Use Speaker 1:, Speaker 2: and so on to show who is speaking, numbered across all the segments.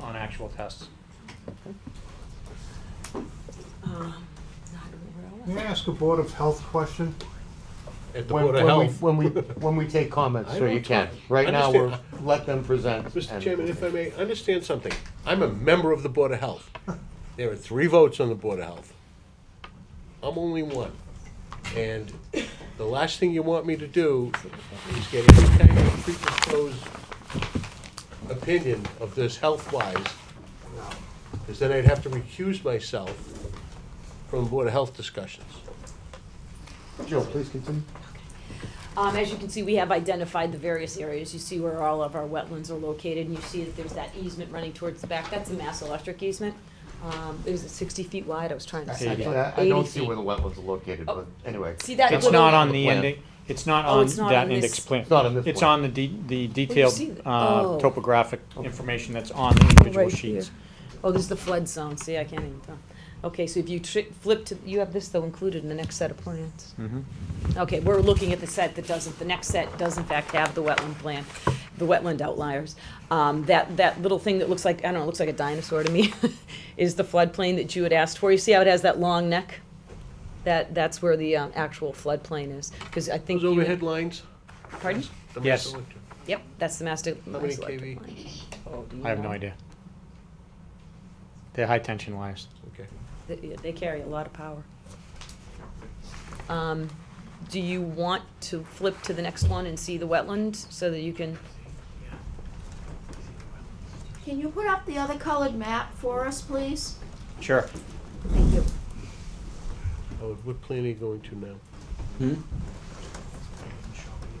Speaker 1: on actual tests.
Speaker 2: Um, not really.
Speaker 3: May I ask a Board of Health question?
Speaker 4: At the
Speaker 3: When-
Speaker 4: Board of
Speaker 3: when we-
Speaker 4: Health.
Speaker 3: When we, when we take comments,
Speaker 4: I
Speaker 3: so
Speaker 4: know
Speaker 3: you
Speaker 4: it's
Speaker 3: can.
Speaker 4: fine.
Speaker 3: Right now, we're,
Speaker 4: Understand.
Speaker 3: let them present.
Speaker 4: Mr.
Speaker 3: and-
Speaker 4: Chairman, if I may, understand something. I'm a member of the Board of Health. There are three votes on the Board of Health. I'm only one. And the last thing you want me to do is get any kind of predisposed opinion of this health-wise, because then I'd have to recuse myself from Board of Health discussions.
Speaker 3: Jill, please continue.
Speaker 2: Um, as you can see, we have identified the various areas. You see where all of our wetlands are located, and you see that there's that easement running towards the back. That's a mass electric easement. Um, is it sixty feet wide? I was trying to say
Speaker 3: Actually,
Speaker 2: that.
Speaker 3: I I don't
Speaker 2: 80
Speaker 3: see
Speaker 2: feet.
Speaker 3: where the wetlands are located,
Speaker 2: Oh.
Speaker 3: but anyway.
Speaker 2: See that
Speaker 1: It's
Speaker 2: Well,
Speaker 1: not
Speaker 2: the-
Speaker 1: on the
Speaker 3: plan.
Speaker 1: ending, it's not
Speaker 2: Oh,
Speaker 1: on
Speaker 2: it's not
Speaker 1: that
Speaker 2: on this- Oh,
Speaker 1: index plan.
Speaker 3: It's not on this
Speaker 1: It's
Speaker 3: plan.
Speaker 1: on the de- the detailed
Speaker 2: see that.
Speaker 1: uh,
Speaker 2: Oh.
Speaker 1: topographic
Speaker 3: Okay.
Speaker 1: information that's on the individual
Speaker 2: Right
Speaker 1: sheets.
Speaker 2: here. Oh, this is the flood zone, see, I can't even tell. Okay, so if you tri- flip to, you have this though included in the next set of plans.
Speaker 1: Mhm.
Speaker 2: Okay, we're looking at the set that doesn't, the next set does in fact have the wetland plan, the wetland outliers. Um, that, that little thing that looks like, I don't know, it looks like a dinosaur to me, is the floodplain that you had asked for. You see how it has that long neck? That, that's where the, um, actual floodplain is, because I think
Speaker 4: Those
Speaker 2: you.
Speaker 4: overhead lines?
Speaker 2: Pardon?
Speaker 4: the
Speaker 1: Yes.
Speaker 4: master electric.
Speaker 2: Yep, that's the master.
Speaker 4: How many
Speaker 2: master electric
Speaker 4: kV?
Speaker 2: line. Oh, do you
Speaker 1: I have no
Speaker 2: know?
Speaker 1: idea. They're high tension wires.
Speaker 4: Okay.
Speaker 2: Th- yeah, They carry a lot of power. Um, Do you want to flip to the next one and see the wetland so that you can?
Speaker 5: Can you put up the other colored map for us, please?
Speaker 1: Sure.
Speaker 5: Thank you.
Speaker 4: Oh, what plan are you going to now?
Speaker 1: Hmm?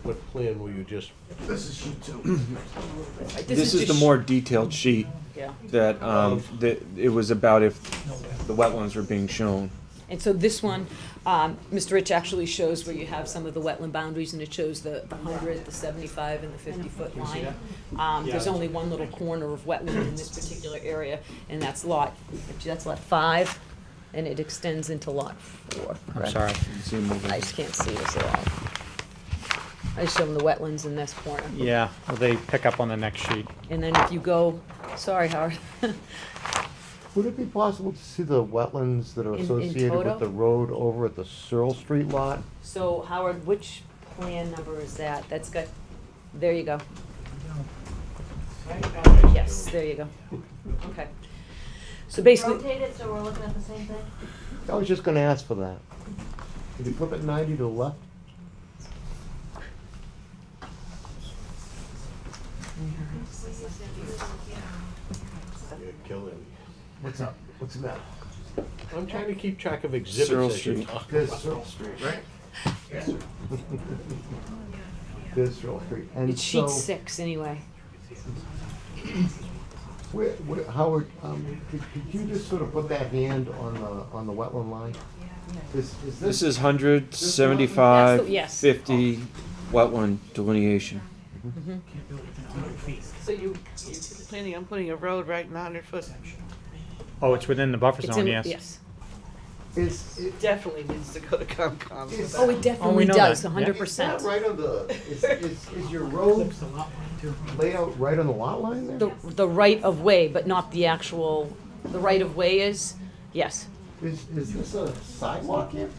Speaker 4: What plan were you just
Speaker 6: This is the
Speaker 2: just-
Speaker 6: more detailed sheet
Speaker 2: Yeah,
Speaker 6: that, um, that it was about if the wetlands were being shown.
Speaker 2: and so this one, um, Mr. Rich actually shows where you have some of the wetland boundaries and it shows the the hundred, the seventy-five and the fifty-foot line. Um, There's only one little corner of wetland in this particular area and that's lot, that's lot five and it extends into lot four.
Speaker 1: I'm sorry.
Speaker 6: See them over.
Speaker 2: I just can't see this at all. I just show them the wetlands in this corner.
Speaker 1: Yeah, well, they pick up on the next sheet.
Speaker 2: And then if you go, sorry, Howard.
Speaker 3: Would it be possible to see the wetlands that are
Speaker 2: In- in
Speaker 3: associated
Speaker 2: toto?
Speaker 3: with the road over at the Searle Street lot?
Speaker 2: So Howard, which plan number is that? That's got, there you go. Yes, there you go. Okay. So basically,
Speaker 7: Rotate it so we're looking at the same thing?
Speaker 3: I was just gonna ask for that. Could you flip it ninety to the left?
Speaker 4: You're killing me.
Speaker 3: What's up? What's the matter?
Speaker 4: I'm trying to keep track of exhibits
Speaker 6: Searle
Speaker 4: as you
Speaker 6: Street.
Speaker 4: talk.
Speaker 3: This Searle Street, right? This Searle Street, and
Speaker 2: it's
Speaker 3: so-
Speaker 2: sheet six anyway.
Speaker 3: Where, where, Howard, um, could, could you just sort of put that hand on the, on the wetland line? This, is
Speaker 6: This
Speaker 3: this,
Speaker 6: is hundred seventy-five,
Speaker 2: That's the- yes.
Speaker 6: fifty wetland delineation.
Speaker 7: So you, you're planning on putting a road right in the hundred foot?
Speaker 1: Oh, it's within the buffer
Speaker 2: It's
Speaker 1: zone,
Speaker 2: in-
Speaker 1: yes.
Speaker 2: Yes.
Speaker 3: is, is,
Speaker 7: Definitely needs to go to Concom.
Speaker 3: is.
Speaker 2: Oh, it definitely
Speaker 1: know
Speaker 2: does,
Speaker 1: that, yeah.
Speaker 2: hundred
Speaker 3: Is that
Speaker 2: percent.
Speaker 3: right on the, is, is, is your road layout right on the lot line there?
Speaker 2: The, the right of way, but not the actual, the right of way is, yes.
Speaker 3: Is, is this a sidewalk here?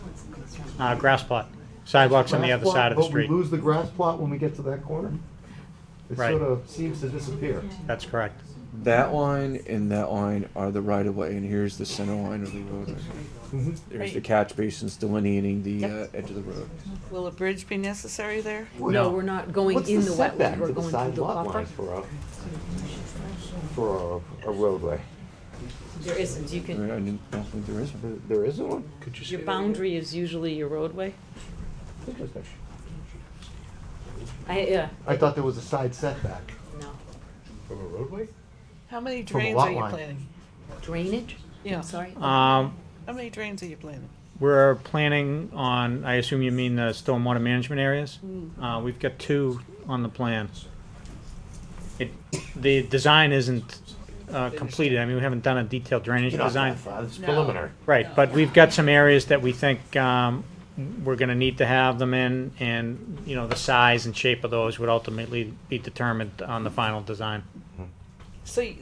Speaker 1: Uh, grass plot. Sidewalks on the
Speaker 3: Grass
Speaker 1: other
Speaker 3: plot,
Speaker 1: side of the
Speaker 3: But we
Speaker 1: street.
Speaker 3: lose the grass plot when we get to that corner? It
Speaker 1: Right.
Speaker 3: sort of seems to disappear.
Speaker 1: That's correct.
Speaker 6: That line and that line are the right of way, and here's the center line of the road.
Speaker 3: Mhm.
Speaker 6: There's the catch basins delineating the uh,
Speaker 2: Yep.
Speaker 6: edge of the road.
Speaker 7: Will a bridge be necessary there?
Speaker 2: No, we're not going
Speaker 3: What's
Speaker 2: in
Speaker 3: the
Speaker 2: the wetland,
Speaker 3: setback
Speaker 2: we're
Speaker 3: to the
Speaker 2: going
Speaker 3: side
Speaker 2: through the
Speaker 3: lot
Speaker 2: buffer.
Speaker 3: lines for a, for a a roadway?
Speaker 2: There isn't, you
Speaker 6: I
Speaker 2: can,
Speaker 6: mean, I didn't, I don't think there is
Speaker 3: There
Speaker 6: one.
Speaker 3: there isn't one?
Speaker 4: Could you say
Speaker 2: Your
Speaker 4: that
Speaker 2: boundary is usually your roadway.
Speaker 3: Interesting.
Speaker 2: I, yeah,
Speaker 3: I thought there was a side setback.
Speaker 2: no.
Speaker 4: again? From a roadway?
Speaker 7: How many
Speaker 3: From a
Speaker 7: drains
Speaker 3: lot
Speaker 7: are you
Speaker 3: line.
Speaker 7: planning?
Speaker 2: Drainage?
Speaker 7: Yeah,
Speaker 2: I'm sorry.
Speaker 1: Um,
Speaker 7: how many drains are you planning?
Speaker 1: We're planning on, I assume you mean the stormwater management areas? Uh, we've got two on the plan. It, the design isn't, uh, completed, I mean, we haven't done a detailed drainage design.
Speaker 3: It's
Speaker 7: No.
Speaker 3: preliminary.
Speaker 1: Right, but we've got some areas that we think, um, we're gonna need to have them in, and, you know, the size and shape of those would ultimately be determined on the final design.
Speaker 7: So you-